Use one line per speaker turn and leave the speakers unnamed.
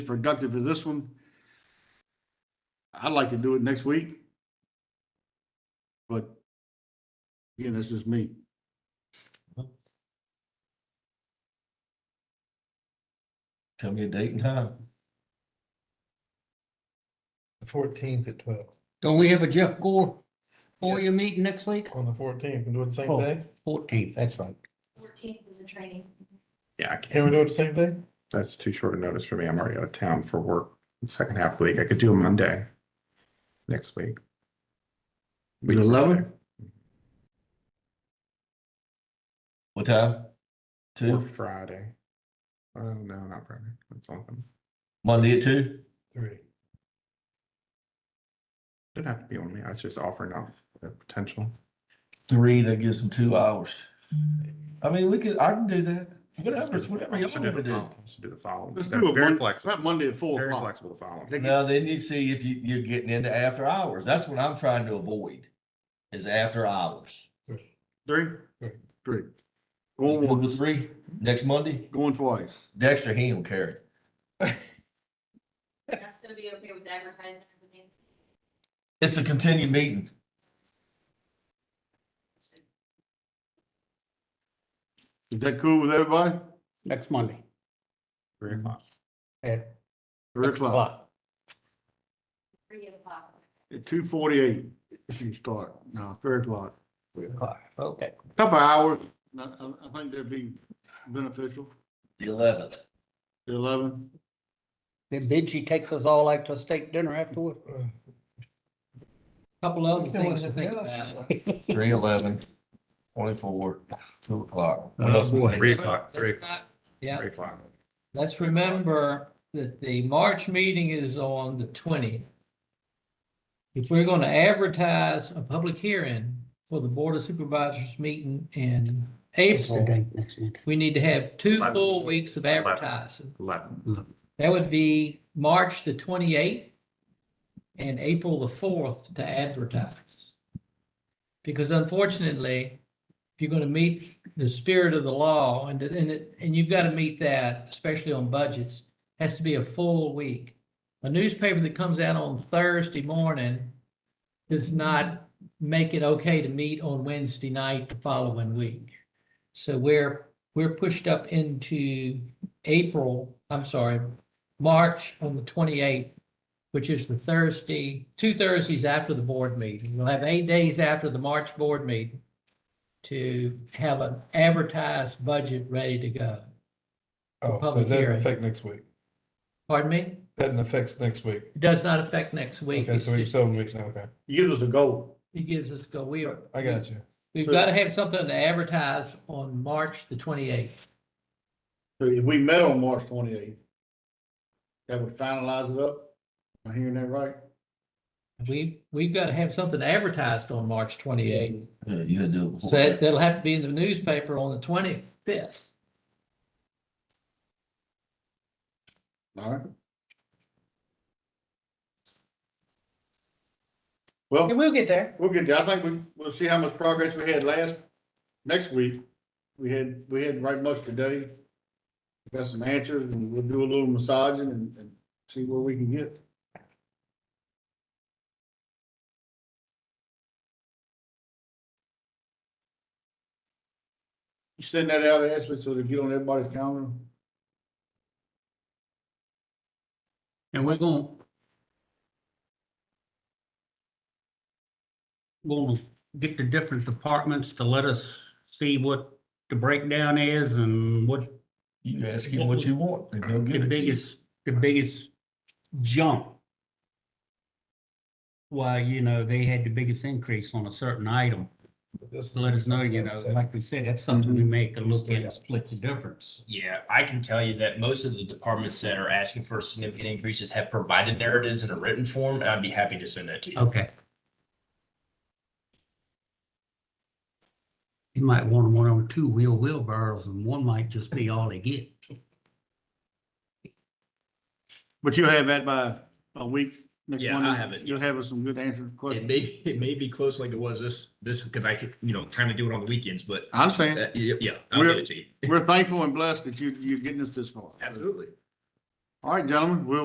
productive for this one. I'd like to do it next week. But again, that's just me.
Tell me a date and time.
The fourteenth at twelve,
Don't we have a Jeff Gore FOIA meeting next week?
on the fourteenth, can we do it the same
Oh.
day?
Fourteenth, that's right.
Fourteenth is a training.
Yeah, I
Can
can't.
we do it the same day?
That's too short a notice for me. I'm already out of town for work the second half of the week. I could do a Monday next week.
The 11th?
What time?
Or
Two,
Friday. Oh, no, not Friday. That's on.
Monday at two?
Three.
Didn't have to be on me. I was just offering up the potential.
Three, that gives them two hours. I mean, we could, I can do that. Whatever, it's whatever y'all
Let's do
want to
the
do.
fol- let's do the following.
Let's
They're
do it
Very
Mon-
flexible,
not Monday at four
very
o'clock.
flexible the following.
They-
Now, then you see if you, you're getting into after hours. That's what I'm trying to avoid, is after hours.
Three,
Right.
three. Going
One
once,
to three, next Monday,
going twice.
Dexter, he don't care.
That's gonna be okay with advertisement. and everything.
It's a continued meeting.
Is that cool with everybody?
Next Monday
Three o'clock.
at
Three
six
o'clock,
o'clock.
Three o'clock.
at two forty-eight, you start. No, three o'clock.
Three o'clock, okay.
Couple of hours, I, I- I think that'd be beneficial.
The eleventh.
The eleven,
Then Benji takes us all out to a steak dinner afterward.
Uh,
Couple other
Yeah,
things to
that's-
think
yeah, that's-
about.
Three eleven, twenty-four, two o'clock.
What
Oh,
else?
Three o'clock, three,
Yeah,
three o'clock.
let's remember that the March meeting is on the twentieth. If we're gonna advertise a public hearing for the Board of Supervisors meeting in
It's the
April,
date next week.
we need to have two
Eleven.
full weeks of
Eleven.
advertising.
Eleven.
That would be March the twenty-eighth and April the fourth to advertise. Because unfortunately, if you're gonna meet the spirit of the law and, and, it- and you've gotta meet that, especially on budgets, has to be a full week. A newspaper that comes out on Thursday morning does not make it okay to meet on Wednesday night the following week. So we're, we're pushed up into April, I'm sorry, March on the twenty-eighth, which is the Thursday, two Thursdays after the board meeting. We'll have eight days after the March board meeting to have an advertised budget ready to go.
Oh, so
public
that doesn't
hearing.
affect next week,
Pardon me?
that affects next week,
It does not affect next week.
okay,
It's
so we have
just,
seven weeks now, okay,
give us a goal.
it gives us, go, we are.
I got you.
We've
So-
got to have something to advertise on March the twenty-eighth.
So if we met on March twenty-eighth, that would finalize it up. Am I hearing that right?
We, we've got to have something advertised on March twenty-eighth.
Yeah, You gotta do it.
So
before
that, that'll have to be in the newspaper on the twenty-fifth.
All right. Well,
we'll get there.
we'll get there. I think we, we'll see how much progress we had last, next week. We had, we had right much today. Got some answers and we'll do a little massaging and, and see where we can get. You send that out, Ashley, so to get on everybody's calendar?
And we're gonna. We'll get the different departments to let us see what the breakdown is and what
You ask him what you want. and he'll
the
give it to you.
biggest, the biggest jump. Why, you know, they had the biggest increase on a certain item.
This-
So let us know, you know, like we said, that's something we make a look at, and split the difference.
Yeah, I can tell you that most of the departments that are asking for significant increases have provided narratives in a written form, and I'd be happy to send that to you.
Okay. You might want one on two wheel wheelbarrows and one might just be all they get.
But you'll have that by a week next
Yeah, I
Monday?
have it.
You'll have us some good answers to
It
questions.
may, it may be close like it was this, this, because I could, you know, kind of do it on the weekends, but
I understand.
that, yeah, yeah, I'll get it to you.
We're thankful and blessed that you, you're getting us this far.
Absolutely.
All right, gentlemen, we'll